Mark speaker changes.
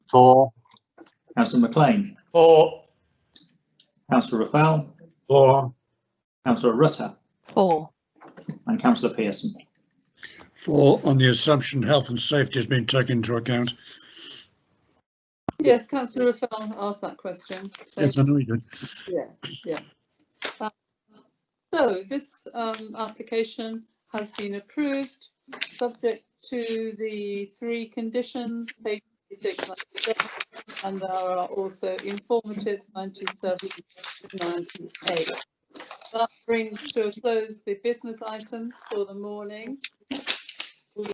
Speaker 1: Four.
Speaker 2: Councillor McLean,
Speaker 3: Four.
Speaker 2: Councillor Raffel,
Speaker 1: Four.
Speaker 2: Councillor Rutter
Speaker 4: Four.
Speaker 2: and Councillor Pearson.
Speaker 5: Four, on the assumption health and safety has been taken into account.
Speaker 6: Yes, councillor Raffel asked that question. so-
Speaker 5: Yes, I know you did.
Speaker 6: Yeah, yeah. Um, So this um application has been approved, subject to the three conditions, page 96, 97, and there are also informative 97, 98. That brings to a close the business items for the morning.